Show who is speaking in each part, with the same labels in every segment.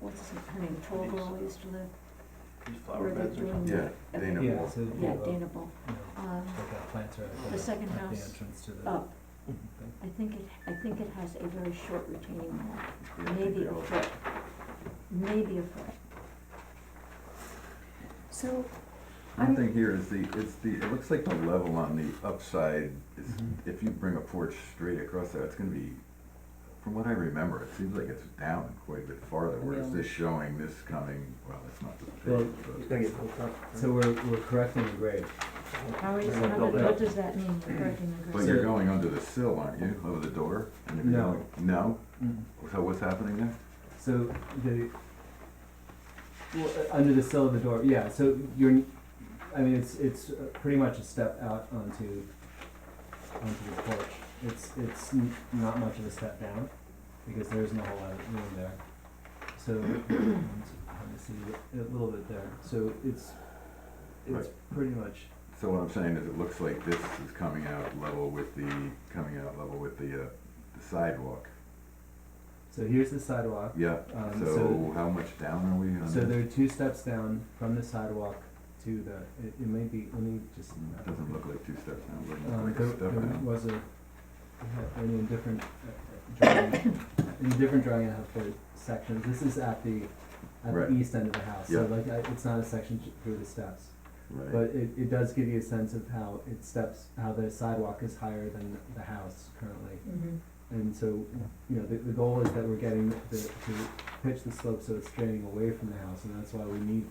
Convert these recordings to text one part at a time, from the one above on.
Speaker 1: what's her name, Tolbro used to live, where
Speaker 2: These flower
Speaker 1: they're
Speaker 2: beds or
Speaker 1: doing.
Speaker 2: something.
Speaker 3: Yeah, Dana
Speaker 1: Yeah,
Speaker 3: Wall.
Speaker 4: so, you know,
Speaker 1: Dana Bowl.
Speaker 4: you know,
Speaker 1: Um,
Speaker 4: like our plants are at
Speaker 1: The
Speaker 4: the,
Speaker 1: second
Speaker 4: at the
Speaker 1: house Oh.
Speaker 4: entrance to the.
Speaker 1: up,
Speaker 4: thing.
Speaker 1: I think it, I think it has a very short retaining wall,
Speaker 3: Yeah, I think
Speaker 1: maybe
Speaker 3: they
Speaker 1: a
Speaker 3: all-
Speaker 1: foot, maybe a foot.
Speaker 5: So,
Speaker 3: One thing here is the, it's the, it looks like the level on the upside is,
Speaker 4: Mhm.
Speaker 3: if you bring a porch straight across there, it's gonna be, from what I remember, it seems like it's down quite a bit farther, whereas
Speaker 5: Yeah.
Speaker 3: this showing, this coming, well, it's not the
Speaker 4: Well,
Speaker 3: big,
Speaker 2: It's
Speaker 3: but.
Speaker 2: gonna get hooked up. right?
Speaker 4: So we're, we're correcting the grade.
Speaker 1: How is,
Speaker 2: They're gonna
Speaker 1: how,
Speaker 2: build
Speaker 1: did-
Speaker 2: it
Speaker 1: what
Speaker 2: up.
Speaker 1: does that mean, you're breaking the
Speaker 3: But
Speaker 1: grass?
Speaker 3: you're
Speaker 4: So-
Speaker 3: going under the sill, aren't you, over the door? And if you're
Speaker 4: No.
Speaker 3: going- No?
Speaker 4: Mm-hmm.
Speaker 3: So what's happening there?
Speaker 4: So the, well, uh, under the sill of the door, yeah, so you're, I mean, it's, it's uh, pretty much a step out onto, onto the porch. It's, it's n- not much of a step down, because there isn't a whole lot of room there. So, um, let me see, a little bit there, so it's, it's pretty much,
Speaker 3: So what I'm saying is it looks like this is coming out level with the, coming out level with the, uh, the sidewalk.
Speaker 4: so here's the sidewalk.
Speaker 3: Yeah,
Speaker 4: Um,
Speaker 3: so
Speaker 4: so-
Speaker 3: how much down are we on
Speaker 4: So
Speaker 3: this?
Speaker 4: there are two steps down from the sidewalk to the, it, it may be, let me just. uh,
Speaker 3: It Doesn't look like two steps now, it looks
Speaker 4: Um,
Speaker 3: like
Speaker 4: there,
Speaker 3: a step
Speaker 4: there
Speaker 3: now.
Speaker 4: was a, I mean, in different, uh, uh, drawing, in a different drawing, I have the sections, this is at the, at
Speaker 3: Right.
Speaker 4: the east end of the house, so
Speaker 3: Yeah.
Speaker 4: like, I, it's not a section j- through the steps.
Speaker 3: Right,
Speaker 4: But it, it does give you a sense of how it steps, how the sidewalk is higher than the house currently.
Speaker 1: Mhm.
Speaker 4: And so, you know, the, the goal is that we're getting the, to pitch the slope so it's draining away from the house, and that's why we need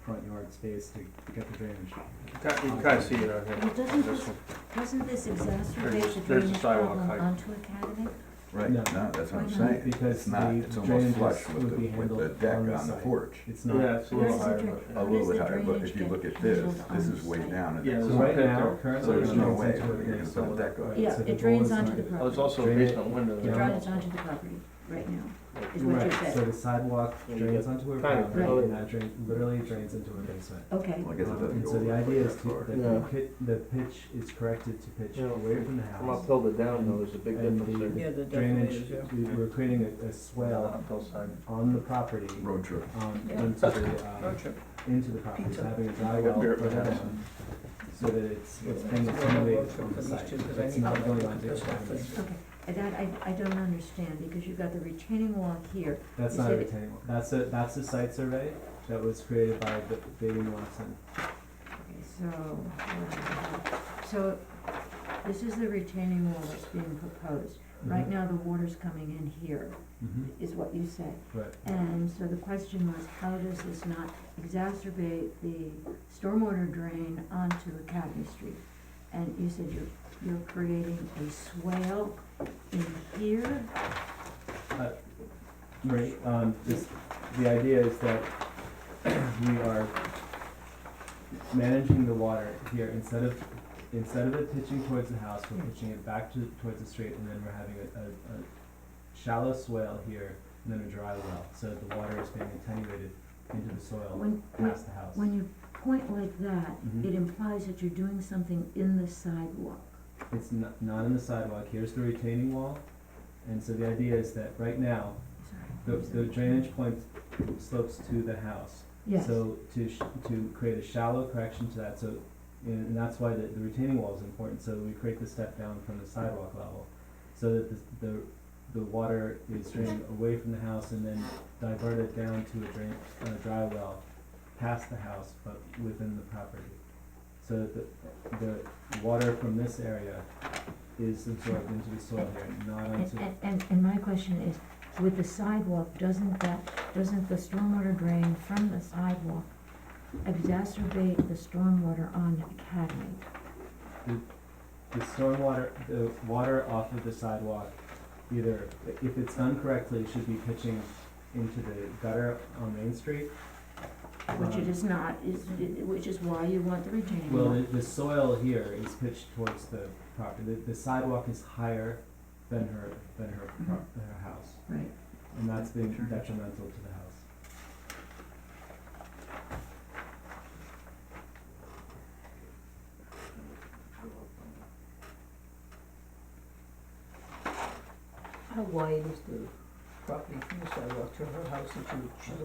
Speaker 4: front yard space to get the drainage.
Speaker 2: You can you can kinda see it out here.
Speaker 1: Well, doesn't
Speaker 2: This
Speaker 1: this-
Speaker 2: one.
Speaker 1: Doesn't this exacerbate
Speaker 2: There's-
Speaker 1: the
Speaker 2: there's the
Speaker 1: drainage
Speaker 2: sidewalk
Speaker 1: problem
Speaker 2: height.
Speaker 1: onto Academy?
Speaker 3: right,
Speaker 4: No.
Speaker 3: no, that's what I'm
Speaker 1: Why not?
Speaker 3: saying,
Speaker 4: Because
Speaker 3: it's not,
Speaker 4: the
Speaker 3: it's almost
Speaker 4: drainages
Speaker 3: flush with
Speaker 4: would
Speaker 3: the,
Speaker 4: be
Speaker 3: with the
Speaker 4: handled
Speaker 3: deck
Speaker 4: on the
Speaker 3: on the
Speaker 4: site.
Speaker 3: porch.
Speaker 4: It's not.
Speaker 2: Yeah, it's a little
Speaker 1: Where's the
Speaker 2: higher.
Speaker 1: drain-
Speaker 2: but-
Speaker 3: A
Speaker 1: What is
Speaker 3: little bit
Speaker 1: the
Speaker 3: higher, but if
Speaker 1: drainage
Speaker 3: you
Speaker 1: get
Speaker 3: look at this,
Speaker 1: handled
Speaker 3: this
Speaker 1: on
Speaker 3: is way
Speaker 1: site?
Speaker 3: down and
Speaker 2: Yeah,
Speaker 3: it's
Speaker 4: So
Speaker 2: there's
Speaker 4: right
Speaker 2: one pit
Speaker 4: now,
Speaker 2: there.
Speaker 4: currently.
Speaker 3: So there's
Speaker 4: we're
Speaker 3: no
Speaker 4: on
Speaker 3: way
Speaker 4: site
Speaker 3: we're
Speaker 4: to
Speaker 3: gonna
Speaker 4: raise
Speaker 3: put a
Speaker 4: solar.
Speaker 3: deck on
Speaker 4: Right,
Speaker 3: it.
Speaker 1: Yeah,
Speaker 4: so the
Speaker 1: it drains
Speaker 4: goal is
Speaker 1: onto
Speaker 4: not-
Speaker 1: the
Speaker 2: Oh, there's
Speaker 1: property.
Speaker 2: also a
Speaker 4: Drain it.
Speaker 2: basement window
Speaker 1: It
Speaker 2: there.
Speaker 4: Yeah.
Speaker 1: drains onto the property right now,
Speaker 2: Like,
Speaker 1: is what you
Speaker 4: Right, so
Speaker 1: said.
Speaker 4: the sidewalk
Speaker 2: Yeah, you
Speaker 4: drains
Speaker 2: got
Speaker 4: onto a
Speaker 2: kind of
Speaker 4: property,
Speaker 2: road.
Speaker 4: and that drain, literally drains into a basement.
Speaker 1: Okay,
Speaker 3: Well, I guess it
Speaker 4: Um,
Speaker 3: doesn't
Speaker 4: And
Speaker 3: go
Speaker 4: so the
Speaker 3: over
Speaker 4: idea
Speaker 3: quite
Speaker 4: is
Speaker 3: that
Speaker 4: to,
Speaker 3: far.
Speaker 4: that
Speaker 2: Yeah.
Speaker 4: the pit, the pitch is corrected to pitch
Speaker 2: Yeah,
Speaker 4: away from the
Speaker 2: From
Speaker 4: house.
Speaker 2: uphill to down though, there's a big
Speaker 4: And
Speaker 2: difference there.
Speaker 4: the
Speaker 5: yeah, the
Speaker 4: drainage,
Speaker 5: decorators, yeah.
Speaker 4: we- we're creating a, a swell
Speaker 2: Uphill side.
Speaker 4: on the property,
Speaker 3: Road trip.
Speaker 4: um,
Speaker 5: Yeah.
Speaker 4: into the, um,
Speaker 5: Road trip.
Speaker 4: into the property, so
Speaker 5: Pizza.
Speaker 4: having a
Speaker 2: I got
Speaker 4: drywall
Speaker 2: beer at my
Speaker 4: further
Speaker 2: house.
Speaker 4: down, so that it's, it's
Speaker 5: Yeah,
Speaker 4: being
Speaker 5: it's a little
Speaker 4: accommodated
Speaker 5: road trip
Speaker 4: on the
Speaker 5: for
Speaker 4: site,
Speaker 5: these two, 'cause I
Speaker 4: it's
Speaker 5: need
Speaker 4: not
Speaker 5: to
Speaker 4: going
Speaker 5: look
Speaker 4: on
Speaker 5: at
Speaker 4: to the
Speaker 5: this one
Speaker 4: property.
Speaker 5: first.
Speaker 1: okay, Uh, that I, I don't understand, because you've got the retaining wall here,
Speaker 4: That's
Speaker 1: You
Speaker 4: not a
Speaker 1: said it-
Speaker 4: retaining wall, that's a, that's a site survey that was created by B- Baden Watson.
Speaker 1: okay, so, uh, so this is the retaining wall that's being proposed. Right now, the water's coming in here,
Speaker 4: Mm-hmm,
Speaker 1: is what you said.
Speaker 4: right,
Speaker 1: And so the question was, how does this not exacerbate the stormwater drain onto Academy Street? And you said you're, you're creating a swale in here?
Speaker 4: right, um, this, the idea is that we are managing the water here, instead of, instead of it pitching towards the house, we're pitching it back to, towards the street, and then we're having a, a, a shallow swale here, and then a dry well, so that the water is being attenuated into the soil
Speaker 1: When, when,
Speaker 4: past the house.
Speaker 1: when you point like that,
Speaker 4: Mhm.
Speaker 1: it implies that you're doing something in the sidewalk.
Speaker 4: It's not, not in the sidewalk, here's the retaining wall, and so the idea is that right now, the,
Speaker 1: Sorry.
Speaker 4: the drainage point slopes to the house.
Speaker 1: Yes,
Speaker 4: So to, sh- to create a shallow correction to that, so, and, and that's why the, the retaining wall is important, so we create the step down from the sidewalk level. So that the, the, the water is drained away from the house and then diverted down to a drain, a dry well past the house, but within the property. So that the, the water from this area is absorbed into the soil here, not
Speaker 1: and,
Speaker 4: onto,
Speaker 1: and- and, and my question is, with the sidewalk, doesn't that, doesn't the stormwater drain from the sidewalk exacerbate the stormwater on Academy?
Speaker 4: the stormwater, the water off of the sidewalk, either, if it's done correctly, should be pitching into the gutter on Main Street.
Speaker 1: Which it
Speaker 4: Um,
Speaker 1: is not, is, which is why you want the retaining
Speaker 4: Well,
Speaker 1: wall.
Speaker 4: the, the soil here is pitched towards the property, the, the sidewalk is higher than her, than her, pro- than her house,
Speaker 1: Right,
Speaker 4: and that's being detrimental to the house.
Speaker 5: How wide is the
Speaker 1: property from the sidewalk to her house and to, to the